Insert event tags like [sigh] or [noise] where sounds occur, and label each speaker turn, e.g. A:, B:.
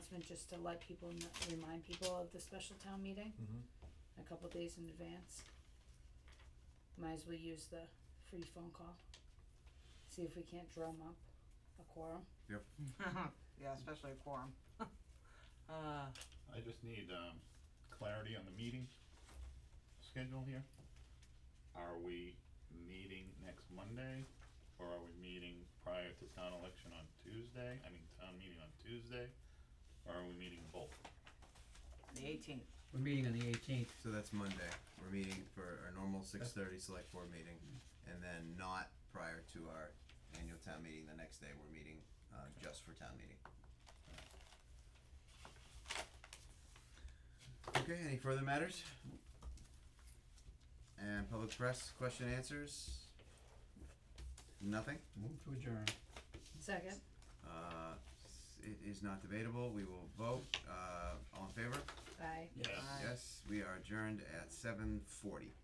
A: announcement just to let people, kn- remind people of the special town meeting
B: Mm-hmm.
A: a couple days in advance. Might as well use the free phone call. See if we can't drum up a quorum.
C: Yeah, especially a quorum. [laughs] Uh,
D: I just need, um, clarity on the meeting schedule here. Are we meeting next Monday, or are we meeting prior to town election on Tuesday, I mean, town meeting on Tuesday, or are we meeting both?
C: the eighteenth,
E: We're meeting on the eighteenth.
B: So that's Monday. We're meeting for our normal six thirty select board meeting, and then not prior to our annual town meeting the next day, we're meeting, uh, just for town meeting. Okay, any further matters? And public press, question answers? Nothing?
E: Move to adjourn.
A: Second,
B: Uh, s- it is not debatable, we will vote, uh, all in favor?
A: aye.
D: Yeah.
C: Aye.
B: Yes, we are adjourned at seven forty.